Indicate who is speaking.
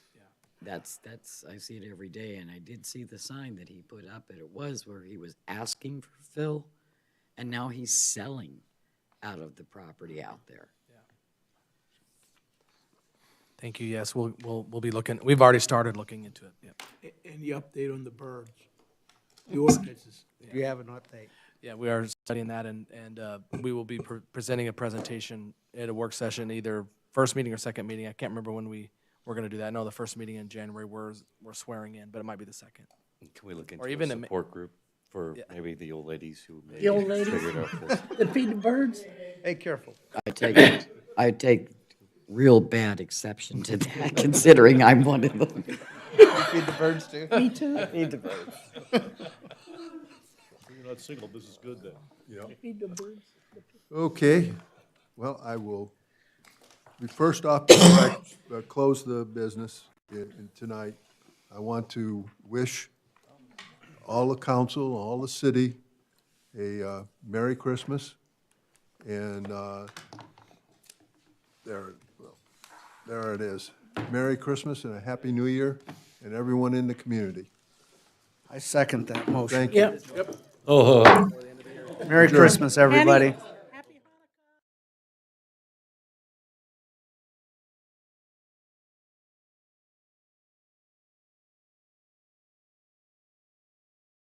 Speaker 1: That's, that's, I see it every day, and I did see the sign that he put up, and it was where he was asking for fill, and now he's selling out of the property out there.
Speaker 2: Thank you, yes, we'll, we'll, we'll be looking, we've already started looking into it, yep.
Speaker 3: A- Any update on the birds? The ordinances? Do you have an update?
Speaker 2: Yeah, we are studying that, and, and uh, we will be pre- presenting a presentation at a work session, either first meeting or second meeting. I can't remember when we, we're going to do that. I know the first meeting in January, we're, we're swearing in, but it might be the second.
Speaker 4: Can we look into
Speaker 2: even
Speaker 4: a
Speaker 2: a ma-
Speaker 4: support group for maybe the old ladies who maybe
Speaker 1: old ladies?
Speaker 4: figured out this?
Speaker 1: To feed the birds?
Speaker 3: Hey, careful.
Speaker 1: I take, I take real bad exception to that, considering I'm one of them.
Speaker 3: Feed the birds too?
Speaker 1: Me too. Feed the birds.
Speaker 5: You're not single, this is good then.
Speaker 6: Okay, well, I will, we first off, before I, uh, close the business i- in tonight. I want to wish all the council, all the city, a uh, Merry Christmas. And uh, there, well, there it is. Merry Christmas and a Happy New Year, and everyone in the community.
Speaker 7: I second that motion.
Speaker 6: Thank you.
Speaker 7: Merry Christmas, everybody.